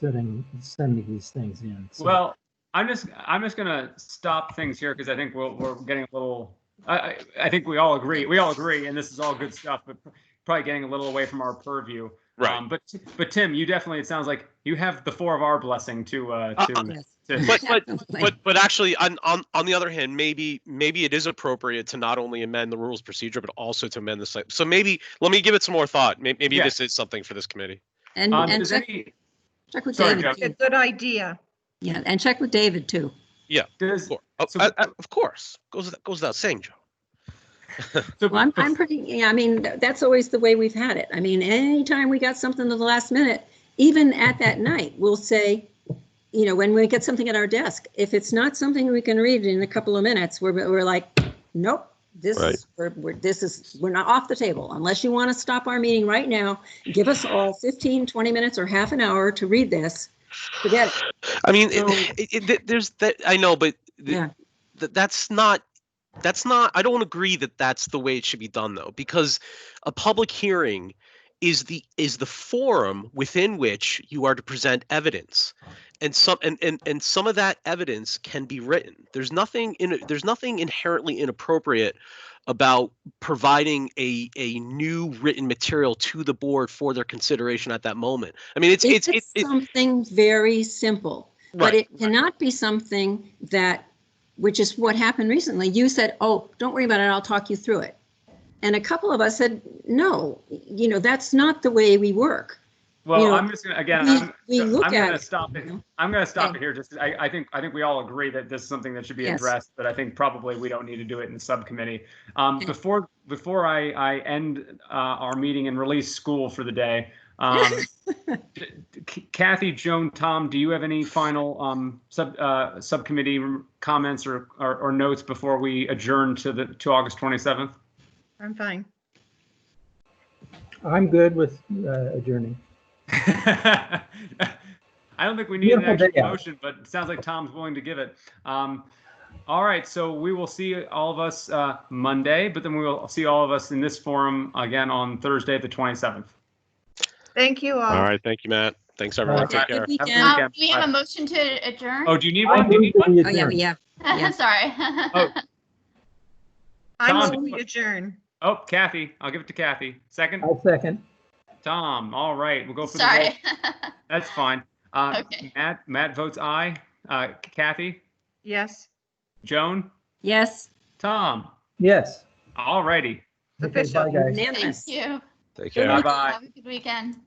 sending, sending these things in. so- Well, I'm just, I'm just gonna stop things here because I think we're, we're getting a little, I, I, I think we all agree, we all agree, and this is all good stuff, but probably getting a little away from our purview. Right. Um, But, but Tim, you definitely, it sounds like you have the four of our blessing to, uh, to. Oh, Yes, to- But but definitely. but but actually, on on on the other hand, maybe maybe it is appropriate to not only amend the rules procedure but also to amend the site. So maybe let me give it some more thought. Maybe, maybe Yeah. this is something for this committee. And, Um, and does check, any, check with Sorry, David, Jeff. A too. good idea. yeah, and check with David too. does, Of course, oh, So- uh, uh, of course. goes goes without saying, Joe. so- Well, I'm, I'm pretty, yeah, I mean, th- that's always the way we've had it. I mean, anytime we got something to the last minute, even at that night, we'll say, you know, when we get something at our desk, if it's not something we can read in a couple of minutes, we're, we're like, nope, this Right. is, we're, we're, this is, we're not off the table. Unless you want to stop our meeting right now, give us all 15, 20 minutes or half an hour to read this. Forget it. I mean, it- So- it, it, th- there's that. I know, but th- Yeah. th- that's not. That's not. I don't agree that that's the way it should be done, though, because a public hearing is the is the forum within which you are to present evidence, and some and and, and some of that evidence can be written. There's nothing in there's nothing inherently inappropriate about providing a a new written material to the board for their consideration at that moment. I mean, it's If it's it's, it's it's something very simple, But right. it cannot be something that, which is what happened recently, you said, oh, don't worry about it, I'll talk you through it. And a couple of us said, no, you know, that's not the way we work. you Well, know, I'm just gonna, again, we- I'm, we I'm look at gonna it, stop it. you know? I'm gonna stop Okay. it here. Just, I, I think, I think we all agree that this is something that should be Yes. addressed, but I think probably we don't need to do it in the subcommittee. Um, Okay. before, before I, I end, uh, our meeting and release school for the day, um, C- Kathy, Joan, Tom, do you have any final, um, sub, uh, subcommittee comments or, or, or notes before we adjourn to the, to August 27th? I'm fine. I'm good with uh, adjourning. I don't think we need an Beautiful actual day out. motion, but it sounds like Tom's willing to give it. Um, all right, so we will see all of us uh, Monday, but then we will see all of us in this forum again on Thursday, the 27th. Thank you all. All right, thank you, Matt. Thanks, everyone. right. Take care. Good weekend. Yeah. Um, do we have a motion to adjourn? Oh, do you need I one? Do you need move that one? we Oh, yeah, adjourn. yeah. yeah. Sorry. Oh. I Tom, move you- we adjourn. Oh, Kathy, I'll give it to Kathy. Second, I'll second. Tom. All right, we'll go for the roll. Sorry. That's fine. Uh, Okay. Matt, Matt votes aye. Uh, Kathy, Yes. Joan, Yes, Tom. Yes. All righty. Okay, bye, guys. Official. Thank unanimous. you. Good Take care. night. Bye-bye. Have a good weekend.